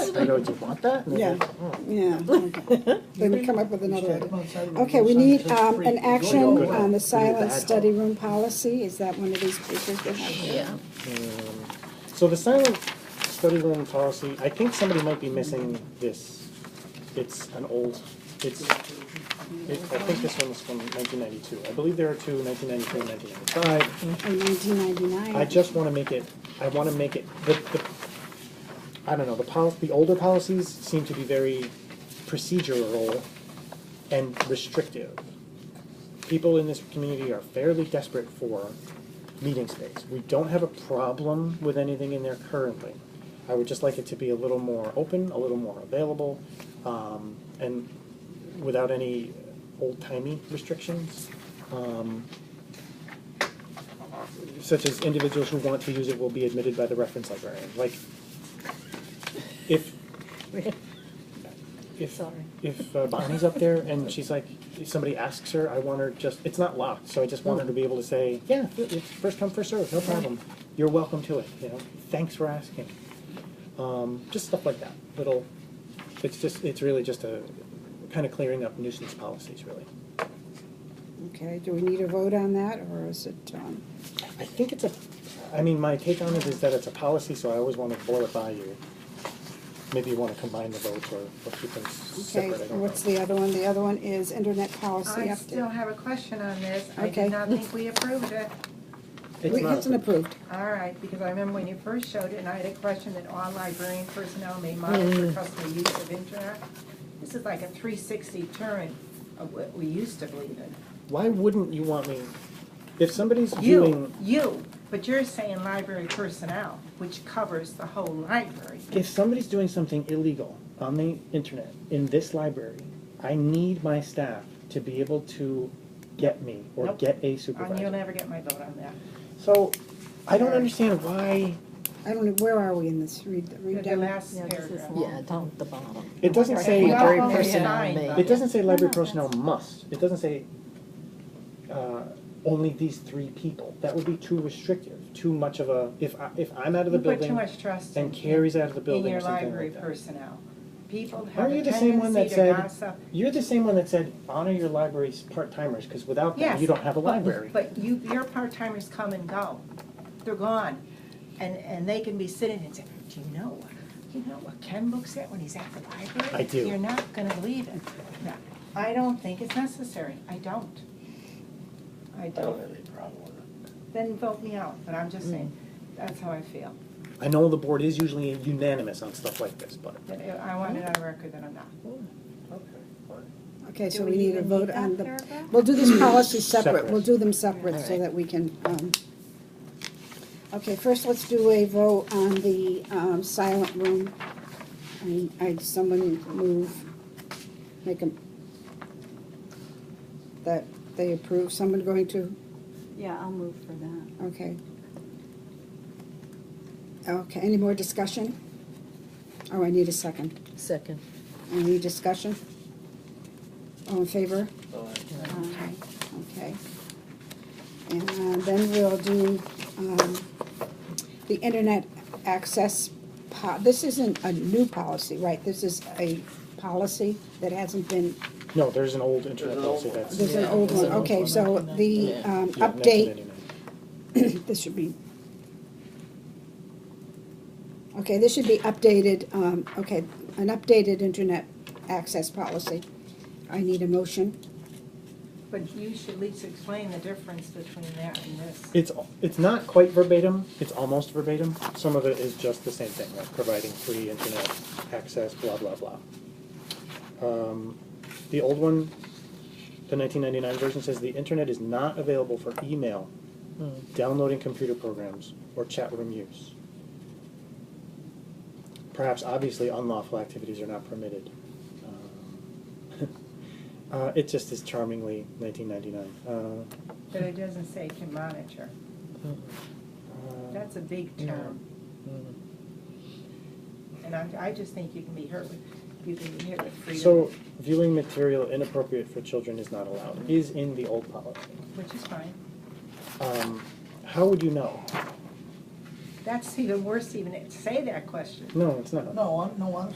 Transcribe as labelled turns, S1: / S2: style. S1: I know, do you want that? And they
S2: Yeah.
S1: go, "Oh."
S2: Yeah, okay. They would come up with another idea. Okay,
S3: Okay,
S2: we need um, an action
S1: Good.
S2: on the
S1: Good.
S2: silent study room policy. Is that one of these papers we have?
S4: Yeah.
S1: Um, So the silent study room policy, I think somebody might be missing this. It's an old, it's, it, I think this one was from nineteen ninety-two. I believe there are two, nineteen ninety-three and nineteen ninety-five.
S2: In 1999?
S1: I just wanna make it, I wanna make it, the, the, I don't know, the pol, the older policies seem to be very procedural and restrictive. People in this community are fairly desperate for meeting space. We don't have a problem with anything in there currently. I would just like it to be a little more open, a little more available, um, and without any old-timey restrictions. Um, such as individuals who want to use it will be admitted by the reference librarian, like, if, if,
S4: Sorry.
S1: if uh, Bonnie's up there and she's like, if somebody asks her, I want her just, it's not locked, so I just want her to be able to say, yeah, it's first come, first served, no problem, you're welcome to it, you know, thanks for asking. Um, just stuff like that, little, it's just, it's really just a, kind of clearing up nuisance policies, really.
S2: Okay, do we need a vote on that, or is it, um,
S1: I think it's a, I mean, my take on it is that it's a policy, so I always want to boil it by you. Maybe you want to combine the votes or, or keep them s-
S2: okay,
S1: separate, I don't
S2: and
S1: know.
S2: what's the other one? The other one is internet policy
S5: I still
S2: update.
S5: have a question on this. I
S2: Okay.
S5: did not think we approved it.
S1: It's
S2: We-
S1: not
S2: It's an approved.
S5: All right, because I remember when you first showed it, and I had a question that all librarian personnel may
S1: Mm.
S5: monitor customer use of internet. This is like a three sixty turn of what we used to believe in.
S1: Why wouldn't you want me, if somebody's
S5: You,
S1: viewing,
S5: you, but you're saying library personnel, which covers the whole library.
S1: if somebody's doing something illegal on the internet in this library, I need my staff to be able to get me or
S5: Nope.
S1: get a
S5: And you'll
S1: supervisor.
S5: never get my vote on that.
S1: So, I don't understand why,
S2: I don't know, where are we in this? Read, read
S5: The- The
S2: down.
S5: last
S4: Yeah, this is
S5: paragraph.
S4: Yeah, down at the bottom.
S1: it doesn't
S5: Okay.
S1: say.
S5: Well,
S4: library
S5: only
S4: personnel
S5: nine,
S4: may-
S5: though.
S1: It doesn't say library
S4: No, no,
S1: personnel must, it doesn't say, uh, only these three people, that would be too restrictive, too much of a, if I, if I'm out of the
S5: You put too
S1: building
S5: much trust in.
S1: and Carrie's out of the
S5: in
S1: building
S5: your
S1: or something
S5: library
S1: like that.
S5: personnel. People
S1: Are
S5: have
S1: you
S5: a
S1: the same one that
S5: tendency to
S1: said-
S5: gossip.
S1: You're the same one that said honor your library's part-timers, cause without them,
S5: Yes,
S1: you don't have a library.
S5: But you, your part-timers come and go. They're gone. And, and they can be sitting and saying, do you know, what- you know what Ken looks at when he's at the library?
S1: I do.
S5: You're not gonna believe it. No, I don't think it's necessary. I don't. I don't. Then vote me out, but I'm just
S1: Mm.
S5: saying, that's how I feel.
S1: I know the board is usually unanimous on stuff like this, but.
S5: But I want it on record that I'm not.
S2: Okay, so
S5: Do
S2: we need a
S5: even
S2: vote
S5: that
S2: on the,
S5: paragraph?
S2: we'll do this policy separate,
S1: Separate.
S2: we'll do them separate so
S4: Alright.
S2: that we can, um, okay, first let's do a vote on the, um, silent room. I, I, someone move, make them, that they approve, someone going to,
S6: Yeah, I'll move for that.
S2: okay. Okay, any more discussion? Oh, I need a second.
S4: Second.
S2: Any discussion? All in favor?
S4: uh,
S6: Um,
S2: Aye, Okay. And uh, then we'll do um, the internet access, po- this isn't a new policy, right? This is a policy that hasn't been,
S1: No, there's an old internet policy that's.
S2: there's an
S4: Yeah,
S2: old
S4: there's
S2: one,
S4: an old
S2: okay,
S4: one.
S2: so the
S4: Yeah.
S2: um,
S1: yeah, that's
S2: update,
S1: an internet.
S2: this should be, okay, this should be updated, um, okay, an updated internet access policy. I need a motion.
S5: But you should at least explain the difference between that and this.
S1: It's, it's not quite verbatim, it's almost verbatim. Some of it is just the same thing, like providing free internet access, blah, blah, blah. Um, The old one, the nineteen ninety-nine version says the internet is not available for email, downloading computer programs, or chat room use. Perhaps obviously unlawful activities are not permitted. Um, Uh, it just is charmingly nineteen ninety-nine. Uh,
S5: But it doesn't say can monitor.
S1: uh,
S5: That's a big term.
S1: mm.
S5: And I, I just think you can be hurt with, you can be hit with freedom,
S1: So viewing material inappropriate for children is not allowed, is in the old policy.
S5: which is fine.
S1: Um, how would you know?
S5: That's even worse even to say that question.
S1: No, it's not.
S3: No, I'm, no, I'm